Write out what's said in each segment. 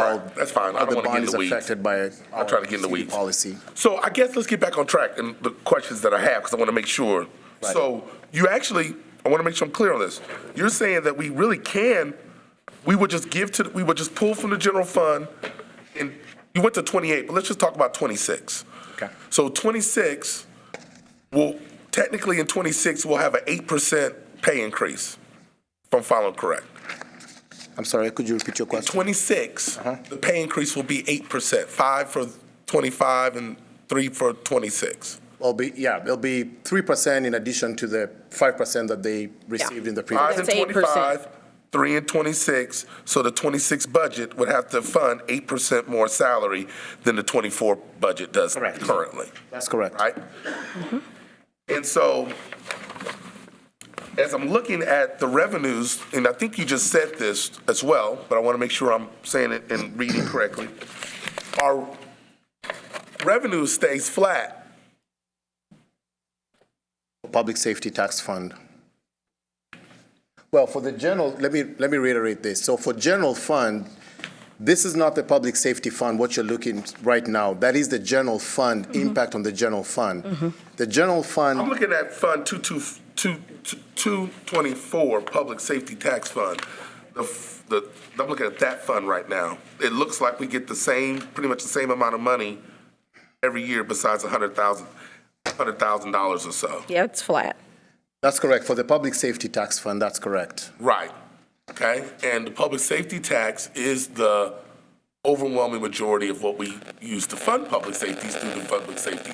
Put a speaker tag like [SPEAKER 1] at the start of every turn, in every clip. [SPEAKER 1] fine, that's fine. I
[SPEAKER 2] How
[SPEAKER 1] don't
[SPEAKER 2] the
[SPEAKER 1] want to
[SPEAKER 2] bond
[SPEAKER 1] get in
[SPEAKER 2] is
[SPEAKER 1] the weeds.
[SPEAKER 2] affected by.
[SPEAKER 1] I'll try to get in the
[SPEAKER 2] our city
[SPEAKER 1] weeds.
[SPEAKER 2] Policy.
[SPEAKER 1] So I guess let's get back on track and the questions that I have, because I want to make sure.
[SPEAKER 2] Right.
[SPEAKER 1] So you actually, I want to make sure I'm clear on this. You're saying that we really can, we would just give to, we would just pull from the general fund, and you went to 28, but let's just talk about 26.
[SPEAKER 2] Okay.
[SPEAKER 1] So 26, will, technically in 26, we'll have an 8% pay increase, if I'm following correct.
[SPEAKER 2] I'm sorry, could you repeat your question?
[SPEAKER 1] 26, the pay increase will be 8%, 5 for 25 and 3 for 26.
[SPEAKER 2] It'll be, yeah, it'll be three percent in addition to the five percent that they received in the
[SPEAKER 1] Five
[SPEAKER 2] previous.
[SPEAKER 1] and
[SPEAKER 3] That's 8%.
[SPEAKER 1] twenty-five, three and twenty-six, so the twenty-six budget would have to fund eight percent more salary than the twenty-four budget does
[SPEAKER 2] Correct.
[SPEAKER 1] currently,
[SPEAKER 2] That's correct.
[SPEAKER 1] right? Mm-hmm. And so, as I'm looking at the revenues, and I think you just said this as well, but I want to make sure I'm saying it and reading correctly. Our revenue stays flat,
[SPEAKER 2] Public Safety Tax Fund. Well, for the general, let me, let me reiterate this. So for general fund, this is not the public safety fund, what you're looking right now. That is the general fund, impact on the general fund. The general
[SPEAKER 1] I'm
[SPEAKER 2] fund,
[SPEAKER 1] looking at Fund 224, Public Safety Tax Fund. The f- The, I'm looking at that fund right now. It looks like we get the same, pretty much the same amount of money every year besides 100,000, $100,000 or so.
[SPEAKER 3] Yeah, it's flat.
[SPEAKER 2] that's correct, for the public safety tax fund, that's correct.
[SPEAKER 1] Right. Okay? And the public safety tax is the overwhelming majority of what we use to fund public safety is through the public safety.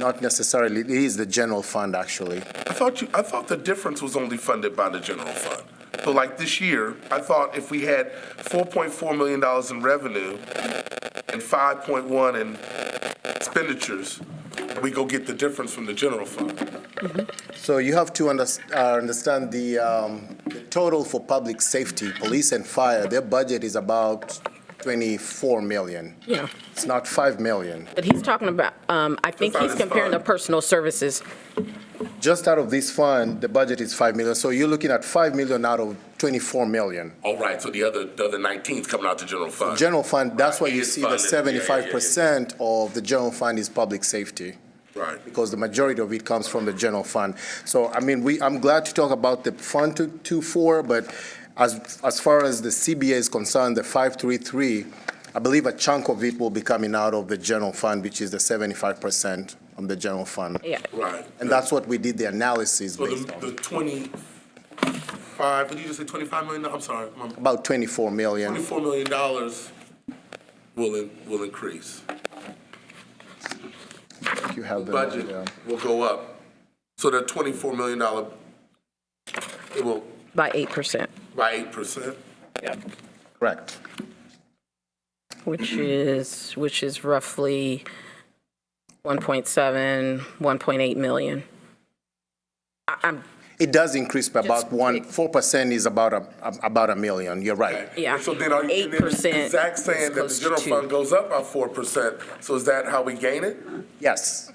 [SPEAKER 2] Not necessarily, it is the general fund, actually.
[SPEAKER 1] I thought you, I thought the difference was only funded by the general fund. So like this year, I thought if we had four point four million dollars in revenue and five point one in expenditures, we go get the difference from the general fund.
[SPEAKER 2] So you have to under, uh, understand the, um, the total for public safety, police and fire, their budget is about 24 million.
[SPEAKER 3] Yeah.
[SPEAKER 2] It's not 5 million.
[SPEAKER 3] But he's talking about, um, I think
[SPEAKER 1] Fine,
[SPEAKER 3] he's
[SPEAKER 1] it's
[SPEAKER 3] comparing
[SPEAKER 1] fine.
[SPEAKER 3] the personal services.
[SPEAKER 2] Just out of this fund, the budget is 5 million. So you're looking at 5 million out of 24 million.
[SPEAKER 1] All Oh, right, so the other, the other nineteen's coming out the general fund.
[SPEAKER 2] General fund, that's why
[SPEAKER 1] Right, it
[SPEAKER 2] you
[SPEAKER 1] is
[SPEAKER 2] see the
[SPEAKER 1] funded. Yeah, yeah, yeah, yeah.
[SPEAKER 2] 75% of the general fund is public safety.
[SPEAKER 1] Right.
[SPEAKER 2] because the majority of it comes from the general fund. So, I mean, we, I'm glad to talk about the Fund two- 224, but as, as far as the CBA is concerned, the 533, I believe a chunk of it will be coming out of the general fund, which is the 75% on the general fund.
[SPEAKER 3] Yeah.
[SPEAKER 1] Right.
[SPEAKER 2] And that's what we did the analysis
[SPEAKER 1] So
[SPEAKER 2] based
[SPEAKER 1] the,
[SPEAKER 2] on,
[SPEAKER 1] the twenty-five, what did you just say, twenty-five million? I'm sorry, my-
[SPEAKER 2] about 24 million.
[SPEAKER 1] $24 million will, in- will increase.
[SPEAKER 2] You have the yeah.
[SPEAKER 1] Budget will go up. So the $24 million, it will,
[SPEAKER 3] By 8%,
[SPEAKER 1] by 8%?
[SPEAKER 2] Correct.
[SPEAKER 3] which is, which is roughly 1.7, 1.8 million. I- I'm,
[SPEAKER 2] It does increase by about
[SPEAKER 3] Just-
[SPEAKER 2] one, 4% is about a, about a million, you're right.
[SPEAKER 3] Yeah.
[SPEAKER 1] So then are you, and then is
[SPEAKER 3] 8%
[SPEAKER 1] Zach saying that
[SPEAKER 3] is
[SPEAKER 1] the
[SPEAKER 3] close to
[SPEAKER 1] general
[SPEAKER 3] two.
[SPEAKER 1] fund goes up by 4%? So is that how we gain it?
[SPEAKER 2] Yes,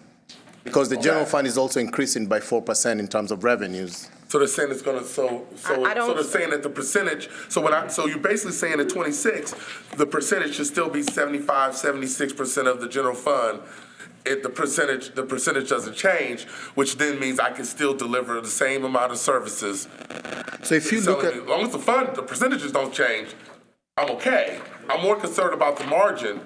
[SPEAKER 2] because the general
[SPEAKER 1] Okay.
[SPEAKER 2] fund is also increasing by 4% in terms of revenues.
[SPEAKER 1] So they're saying it's gonna, so, so,
[SPEAKER 3] I- I
[SPEAKER 1] so
[SPEAKER 3] don't-
[SPEAKER 1] they're saying that the percentage, so when I, so you're basically saying at twenty-six, the percentage should still be 75, 76 percent of the general fund. If the percentage, the percentage doesn't change, which then means I can still deliver the same amount of services.
[SPEAKER 2] So if you
[SPEAKER 1] So
[SPEAKER 2] look at,
[SPEAKER 1] as long as the fund, the percentages don't change, I'm okay. I'm more concerned about the margin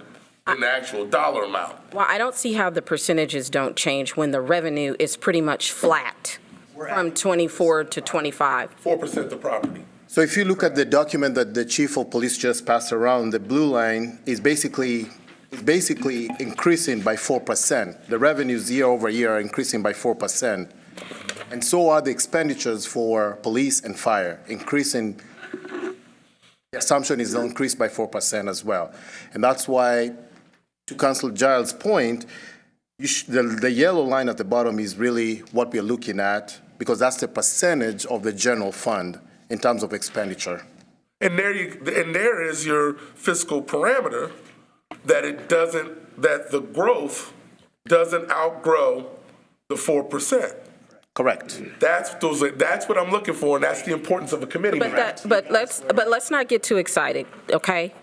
[SPEAKER 1] than the actual dollar amount.
[SPEAKER 3] well, I don't see how the percentages don't change when the revenue is pretty much flat from 24 to 25.
[SPEAKER 1] Four percent the property.
[SPEAKER 2] so if you look at the document that the chief of police just passed around, the blue line is basically, is basically increasing by 4%. The revenues year over year are increasing by 4%. And so are the expenditures for police and fire, increasing, the assumption is increased by 4% as well. And that's why, to Council Giles' point, You sh- The, the yellow line at the bottom is really what we're looking at, because that's the percentage of the general fund in terms of expenditure.
[SPEAKER 1] And there you, and there is your fiscal parameter, that it doesn't, that the growth doesn't outgrow the four percent.
[SPEAKER 2] Correct.
[SPEAKER 1] That's, those, are- that's what I'm looking for, and that's the importance of a committee.
[SPEAKER 3] But
[SPEAKER 1] meeting.
[SPEAKER 3] that, but let's, but let's not get too excited, okay?